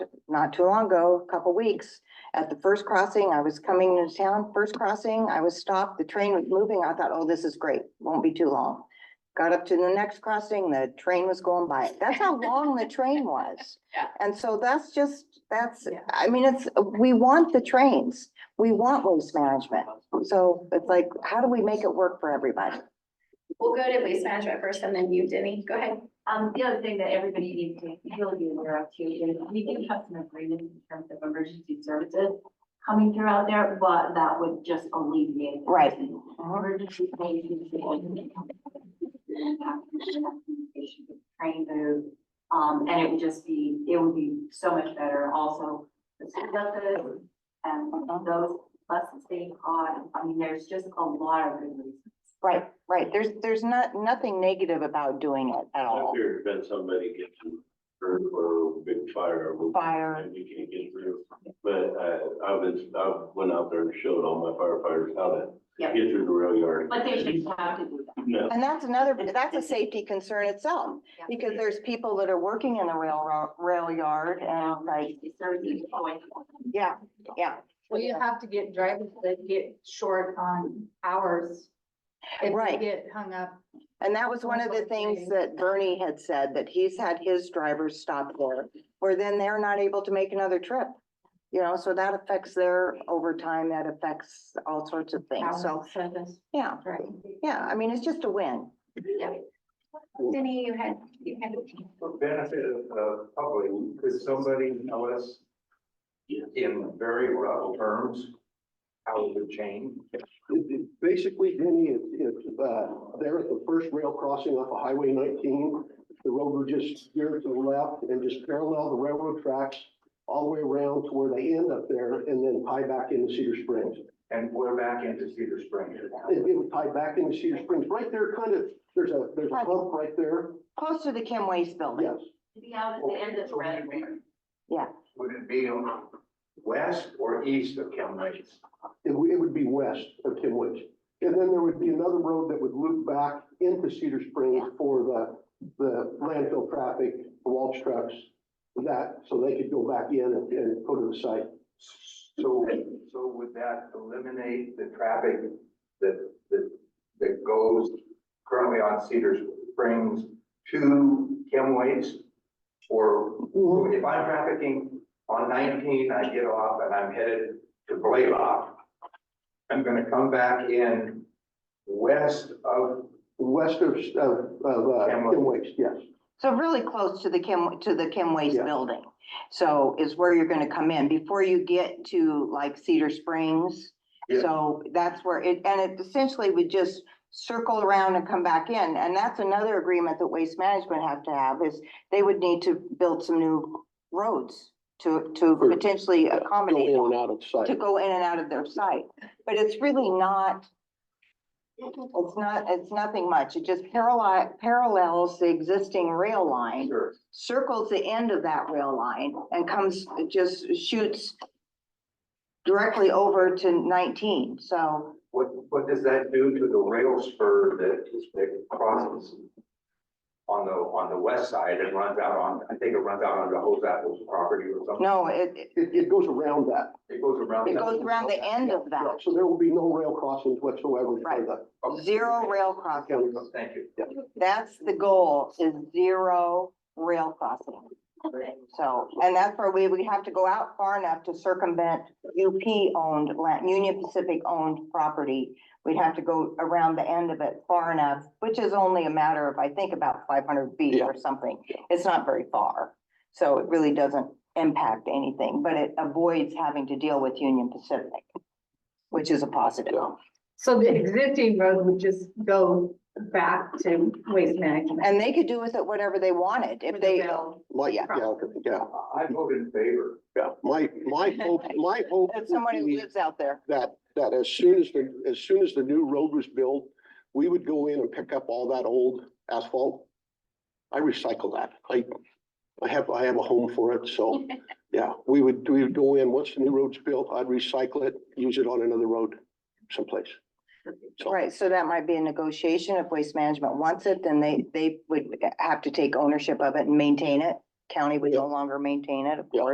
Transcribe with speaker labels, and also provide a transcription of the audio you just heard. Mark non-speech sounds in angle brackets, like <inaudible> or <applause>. Speaker 1: not too long ago, a couple weeks, at the first crossing, I was coming into town, first crossing, I was stopped, the train was moving, I thought, oh, this is great, won't be too long. Got up to the next crossing, the train was going by. That's how
Speaker 2: <laughs>
Speaker 1: long the train was.
Speaker 2: Yeah.
Speaker 1: And so that's just, that's,
Speaker 2: Yeah.
Speaker 1: I mean, it's, we want the trains, we want waste management. So it's like, how do we make it work for everybody?
Speaker 2: We'll go to waste management first and then you, Denny, go ahead.
Speaker 3: Um, the other thing that everybody needs to really be aware of too is we do have some agreements in terms of emergency services coming through out there, but that would just alleviate. the
Speaker 1: Right.
Speaker 3: Emergency safety. Train move, um, and it would just be, it would be so much better also. The conductors and those buses being on, I mean, there's just a lot of good reasons.
Speaker 1: Right, right. There's, there's not, nothing negative about doing it at
Speaker 4: If
Speaker 1: all.
Speaker 4: there's been somebody getting hurt or a big fire. we-
Speaker 1: Fire.
Speaker 4: And we can't get through. But uh, I was, I went out there and showed all my firefighters how to
Speaker 3: Yeah.
Speaker 4: get through the rail yard.
Speaker 3: But they should have to do that.
Speaker 4: No,
Speaker 1: And that's another, that's a safety concern itself,
Speaker 3: Yeah.
Speaker 1: because there's people that are working in the railroad, rail yard and like,
Speaker 3: Emergency services going.
Speaker 1: yeah, yeah.
Speaker 5: Well, you have to get drivers that get short on hours. if you
Speaker 1: Right.
Speaker 5: Get hung up.
Speaker 1: And that was one of the things that Bernie had said, that he's had his drivers stop there, where then they're not able to make another trip. You know, so that affects their overtime, that affects all sorts of things. So,
Speaker 5: hours of service,
Speaker 1: yeah,
Speaker 5: right.
Speaker 1: yeah, I mean, it's just a win.
Speaker 2: Denny, you had, you had.
Speaker 6: for benefit of the public, could somebody tell us in very rough terms how it would change?
Speaker 7: It- it- Basically, Denny, if, if, uh, there at the first rail crossing off of Highway nineteen, the road would just veer to the left and just parallel the railroad tracks all the way around to where they end up there and then tie back into Cedar Springs.
Speaker 6: And we're back into Cedar Springs.
Speaker 7: It, it would tie back into Cedar Springs, right there, kind of, there's a, there's a hump right there,
Speaker 1: Close to the Kim Waste Building.
Speaker 7: yes.
Speaker 3: To be out at the end of the red.
Speaker 6: Would it be on west or east of Cal Heights?
Speaker 7: It would, it would be west of Timwich. And then there would be another road that would loop back into Cedar Springs for the, the landfill traffic, the Walsh trucks. That, so they could go back in and, and go to the site.
Speaker 6: So, so would that eliminate the traffic that, that, that goes currently on Cedar Springs to Kim Waits? Or if I'm trafficking on nineteen, I get off and I'm headed to Blaylock. I'm gonna come back in west of,
Speaker 7: West of, of, of, uh,
Speaker 6: Kenwood.
Speaker 7: Timwich, yes.
Speaker 1: So really close to the Kim, to the Kim Waste
Speaker 7: Yeah.
Speaker 1: Building. So is where you're gonna come in before you get to like Cedar Springs.
Speaker 6: Yeah.
Speaker 1: So that's where it, and it essentially would just circle around and come back in. And that's another agreement that Waste Management have to have is they would need to build some new roads to, to
Speaker 7: For-
Speaker 1: potentially accommodate,
Speaker 7: Go in and out of
Speaker 1: to
Speaker 7: site.
Speaker 1: go in and out of their site. But it's really not, it's not, it's nothing much. It just parallel, parallels the existing rail line
Speaker 6: Sure.
Speaker 1: circles the end of that rail line and comes, it just shoots directly over to nineteen, so
Speaker 6: what, what does that do to the rail spur that, that crosses? On the, on the west side and runs out on, I think it runs out onto Hose Apple's property or something.
Speaker 1: no, it, it-
Speaker 7: It, it goes around that.
Speaker 6: It goes around.
Speaker 1: it goes around the end of that,
Speaker 7: So there will be no rail crossings whatsoever
Speaker 1: Right.
Speaker 7: for
Speaker 6: Okay.
Speaker 1: zero rail crossing.
Speaker 6: Thank you.
Speaker 1: That's the goal, is zero rail crossing. So, and that's where we, we have to go out far enough to circumvent UP owned, land Union Pacific owned property. We'd have to go around the end of it far enough, which is only a matter of, I think, about five hundred feet
Speaker 7: Yeah.
Speaker 1: or something. It's not very far. So it really doesn't impact anything, but it avoids having to deal with Union Pacific, which is a positive.
Speaker 5: So the existing road would just go back to waste management.
Speaker 1: And they could do with it whatever they wanted if
Speaker 5: with the
Speaker 1: they,
Speaker 5: bill.
Speaker 7: Like, yeah, yeah.
Speaker 6: I vote in favor.
Speaker 7: Yeah, my, <laughs> my hope, my hope.
Speaker 1: if somebody
Speaker 7: would be
Speaker 1: who lives out there.
Speaker 7: That, that as soon as the, as soon as the new road was built, we would go in and pick up all that old asphalt. I recycle that. I, I have, I have a home for it, so, yeah, we would, we would go in, once the new road's built, I'd recycle it, use it on another road someplace. So-
Speaker 1: Right, so that might be a negotiation. If Waste Management wants it, then they, they would have to take ownership of it and maintain it. County would no longer maintain it, of
Speaker 7: Yeah.
Speaker 1: course.